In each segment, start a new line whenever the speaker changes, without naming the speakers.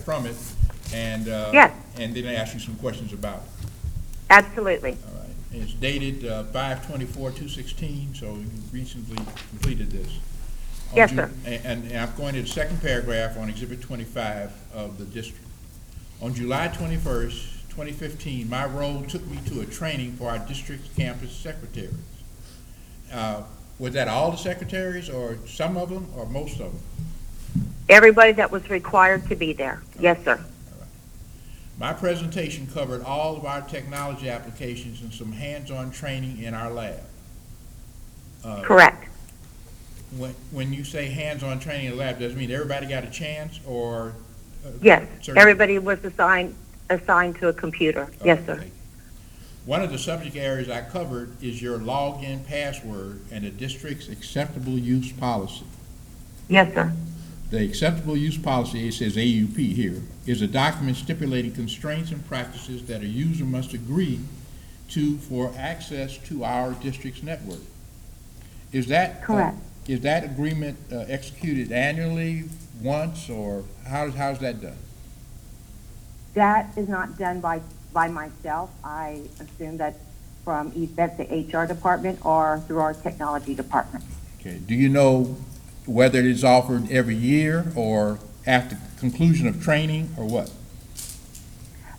from it, and, uh,
Yes.
and then I ask you some questions about it,
Absolutely.
all right? And It's dated uh, 5/24/216, so you recently completed this. On
Yes,
Ju-
sir.
a- And and I'm going to the second paragraph on Exhibit 25 of the district. On July 21st, 2015, my role took me to a training for our district's campus secretaries. Uh, Was that all the secretaries, or some of them, or most of them?
Everybody that was required to be there. Yes, sir.
My presentation covered all of our technology applications and some hands-on training in our lab. Uh,
Correct.
When, when you say hands-on training in the lab, does it mean everybody got a chance, or? uh,
Yes.
certain-
Everybody was assigned, assigned to a computer.
Uh,
Yes, sir.
Okay. One of the subject areas I covered is your login password and the district's acceptable use policy.
Yes, sir.
The acceptable use policy, it says AUP here, is a document stipulating constraints and practices that a user must agree to for access to our district's network. Is that? uh,
Correct.
Is that agreement uh, executed annually, once, or how, how's that done?
That is not done by, by myself. I assume that from either that's the HR department or through our technology department.
Okay, do you know whether it is offered every year, or after conclusion of training, or what?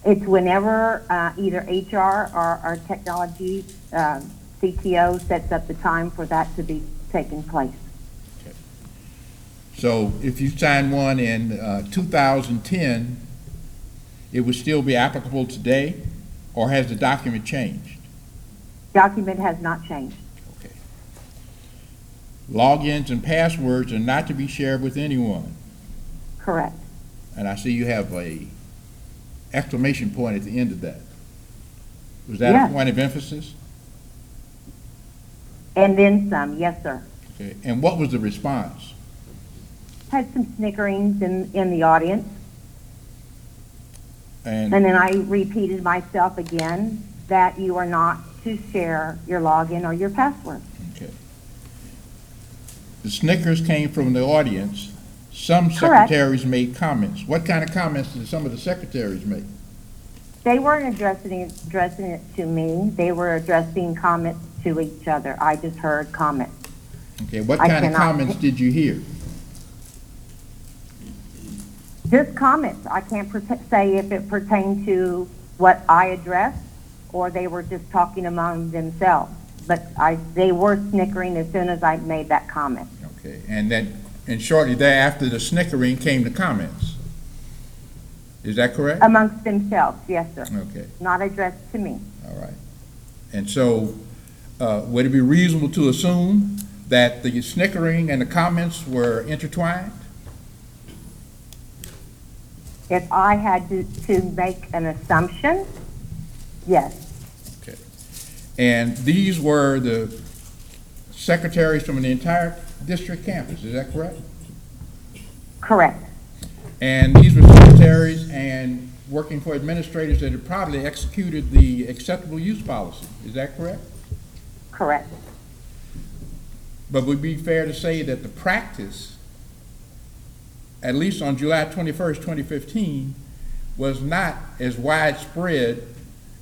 It's whenever uh, either HR or our technology um, CTO sets up the time for that to be taking place.
So if you signed one in uh, 2010, it would still be applicable today, or has the document changed?
Document has not changed.
Okay. Logins and passwords are not to be shared with anyone,
Correct.
and I see you have a exclamation point at the end of that. Was that
Yes.
a point of emphasis?
And then some, yes, sir.
Okay, and what was the response?
Had some snickerings in, in the audience.
And,
And then I repeated myself again that you are not to share your login or your password.
okay. The snickers came from the audience. Some
Correct.
secretaries made comments. What kind of comments did some of the secretaries make?
They weren't addressing it, addressing it to me. They were addressing comments to each other. I just heard comments.
Okay, what
I
kind of
cannot-
comments did you hear?
Just comments. I can't perte- say if it pertained to what I addressed or they were just talking among themselves. But I, they were snickering as soon as I made that comment.
Okay, and then, and shortly thereafter, the snickering came the comments. Is that correct?
Amongst themselves, yes, sir.
Okay,
Not addressed to me.
all right. And so, uh, would it be reasonable to assume that the snickering and the comments were intertwined?
If I had to, to make an assumption, yes,
And these were the secretaries from the entire district campus, is that correct?
correct.
And these were secretaries and working for administrators that had probably executed the acceptable use policy, is that correct?
Correct.
But would it be fair to say that the practice, at least on July twenty-first, twenty fifteen, was not as widespread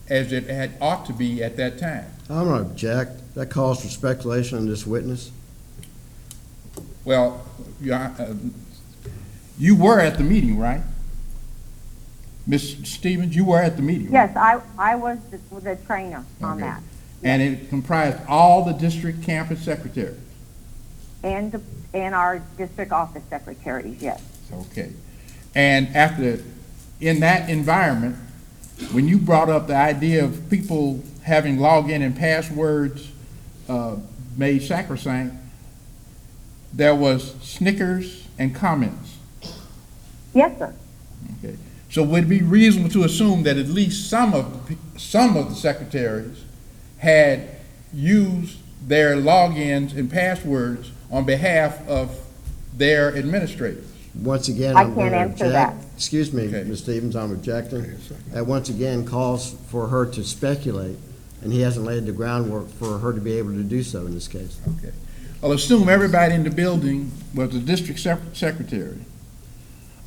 as it had ought to be at that time?
I'm gonna object. That calls for speculation on this witness.
Well, you, uh, you were at the meeting, right? Ms. Stevens, you were at the meeting, right?
Yes, I, I was the, the trainer on
Okay.
that.
And it comprised all the district campus secretaries?
And, the- and our district office secretaries, yes.
Okay. And after, in that environment, when you brought up the idea of people having login and passwords uh, made sacrosanct, there was snickers and comments.
Yes, sir.
Okay. So would it be reasonable to assume that at least some of, the pe- some of the secretaries had used their logins and passwords on behalf of their administrators?
Once again,
I
I'm gonna
can't
object.
answer that.
Excuse me,
Okay.
Ms. Stevens, I'm objecting. That once again calls for her to speculate, and he hasn't laid the groundwork for her to be able to do so in this case.
Okay. Well, assume everybody in the building was the district sec- secretary.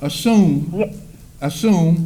Assume
Ye-
assume